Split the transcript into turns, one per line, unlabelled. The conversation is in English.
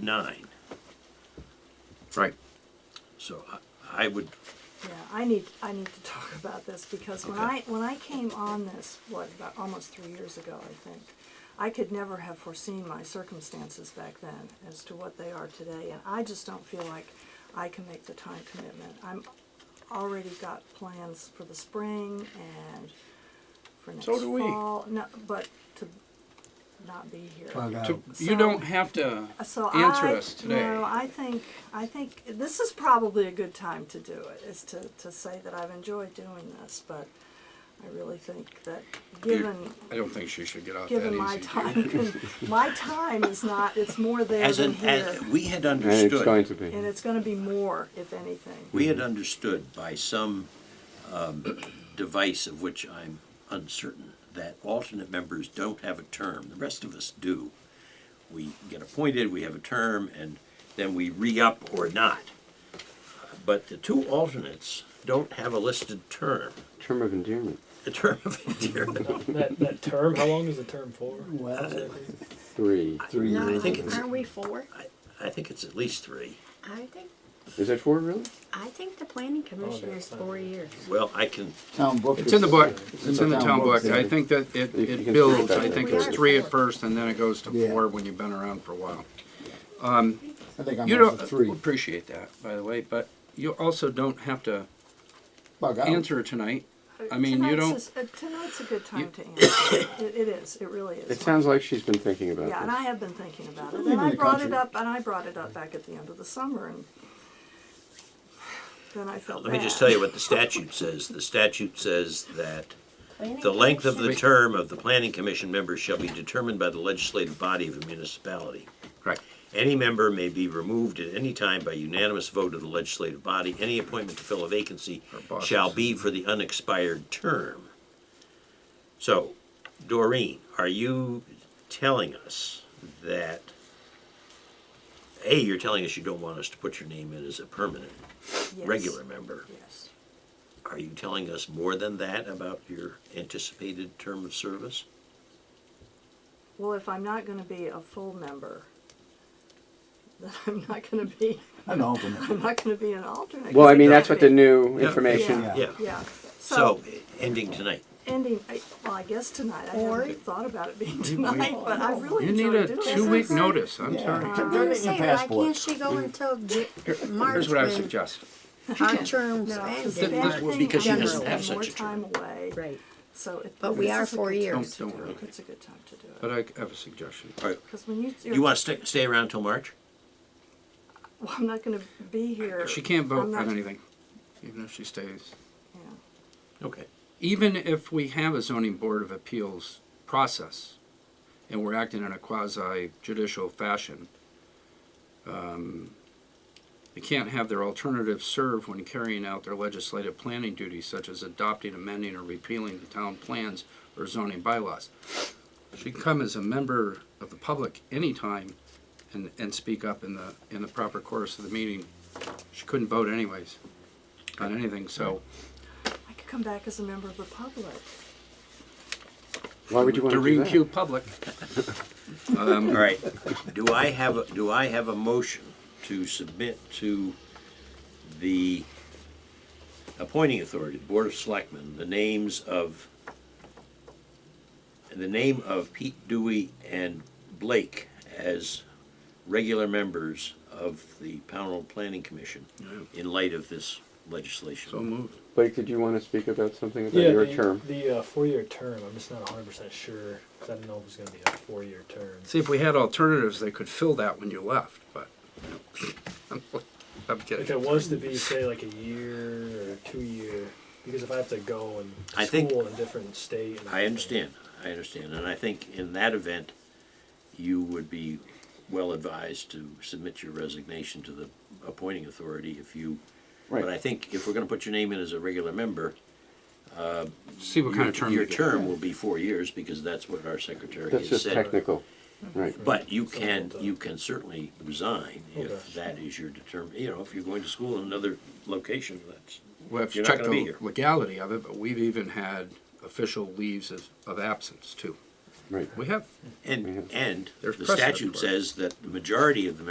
nine,
Right.
so I- I would,
Yeah, I need, I need to talk about this because when I, when I came on this, what, about almost three years ago, I think, I could never have foreseen my circumstances back then as to what they are today, and I just don't feel like I can make the time commitment. I'm already got plans for the spring and for next
do we.
fall, no, but to not be here.
To-
Um, So-
You don't have to
So
answer
I,
us today.
No, I think I think this is probably a good time to do it. Is to, to say that I've enjoyed doing this, but I really think that
you-
given
I don't think she should get off that
given my
easy.
time, con- my time is not. It's more there
as
than
an,
here,
as, we had
And it's going
understood,
to be.
and it's going to be more, if anything.
we had understood by some um, device of which I'm uncertain, that alternate members don't have a term, the rest of us do. We get appointed, we have a term, and then we re-up or not. But the two alternates don't have a listed term,
Term of endearment.
a term of endearment.
That, that term, how long is the term for?
Three. Three.
No,
I think it's-
aren't we four?
I think it's at least three.
I think,
Is that four, really?
I think the planning commission is
Oh,
four years.
Well, I can,
Town book.
It's in the
is-
book,
it's
it's
a
in the town book, I
yeah.
think that it,
You can
it
see
builds,
that
I
it
think
goes
it's
to
three at
four.
first, and then it goes to
Yeah.
four when you've been around for a while.
I think I'm
You uh,
on
don't,
the
we
three.
appreciate that, by the way, but you also don't have to
Bug out.
answer tonight. I mean, you
Tonight's
don't-
is- uh, tonight's a good time to answer. it, it is. It really is.
It sounds like she's been thinking about
Yeah, and I
this.
have been thinking about it,
Leaving
and I
the
brought it
country.
up, and I brought it up back at the end of the summer, and then I felt
let me just
bad.
tell you what the statute says. The statute says that the length of the
Wait.
term of the planning commission members shall be determined by the legislative body of a municipality.
Right.
Any member may be removed at any time by unanimous vote of the legislative body. Any appointment to fill a vacancy
Or bosses.
shall be for the unexpired term. So, Doreen, are you telling us that, A, you're telling us you don't want us to put your name in as a permanent,
Yes,
regular member?
Yes.
Are you telling us more than that about your anticipated term of service?
Well, if I'm not gonna be a full member, then I'm not gonna be,
An alternate.
I'm not gonna be an alternate. 'cause
Well, I
can't
mean, that's what the
be.
new information.
Yeah.
Yeah,
Yeah,
so,
so,
ending tonight.
ending, I- well, I guess tonight, I
Or-
hadn't thought about it being tonight, but I really
You need
enjoyed
a
doing
two-week
this.
notice, I'm
Yeah.
sorry.
Get
I'm
your
just saying, why
passport.
can't she go until J- March
Here's what I would
when
suggest.
our terms
No, 'cause
Th-
if
this
end?
that- will-
anything,
because she
I'm
doesn't
gonna
have
spend more
such a term.
time away.
Right.
So it.
But we
this
are
is a
four
good time
years.
to
Don't-
do it.
don't worry.
It's a good time to do it.
But I have a suggestion.
Because when you.
You want to stay, stay around till March?
Well, I'm not gonna be here.
She can't vote
I'm
on
not-
anything, even if she stays.
yeah.
Okay.
even if we have a zoning board of appeals process and we're acting in a quasi judicial fashion, um, they can't have their alternatives serve when carrying out their legislative planning duties such as adopting, amending, or repealing the town plans or zoning bylaws. She can come as a member of the public anytime and, and speak up in the, in the proper course of the meeting. She couldn't vote anyways on anything, so.
I could come back as a member of the public.
Why would you want to do
Doreen
that?
Pugh Public.
All right. Do I have, a do I have a motion to submit to the appointing authority, the Board of Selectmen, the names of, the name of Pete Dewey and Blake as regular members of the Pownell Planning Commission in light of this legislation?
So moved.
Blake, did you want to speak about something about
Yeah,
your
the,
term?
the uh, four-year term. I'm just not 100 percent sure because I didn't know it was going to be a four-year term.
See, if we had alternatives, they could fill that when you left, but, you know, I'm, I'm
If
kidding.
it was to be, say, like a year or two-year, because if I have to go and
I
school
think-
in a different state, and
I
everything,
understand, I understand, and I think in that event, you would be well advised to submit your resignation to the appointing authority if you, but I
Right.
think if we're gonna put your name in as a regular member,
See what kind
your,
of term
your
you get.
term will be four years, because that's what our secretary
That's
has
just
said.
technical. Right.
But you can,
Something like that.
you can certainly resign if
Okay.
that is your determin, you know, if you're going to school in another location, that's,
We have to
you're not
check
gonna be
the
here.
legality of it, but we've even had official leaves of, of absence too.
Right.
We have.
and, and
There's
the
precedent
statute
for it.
says that the majority of the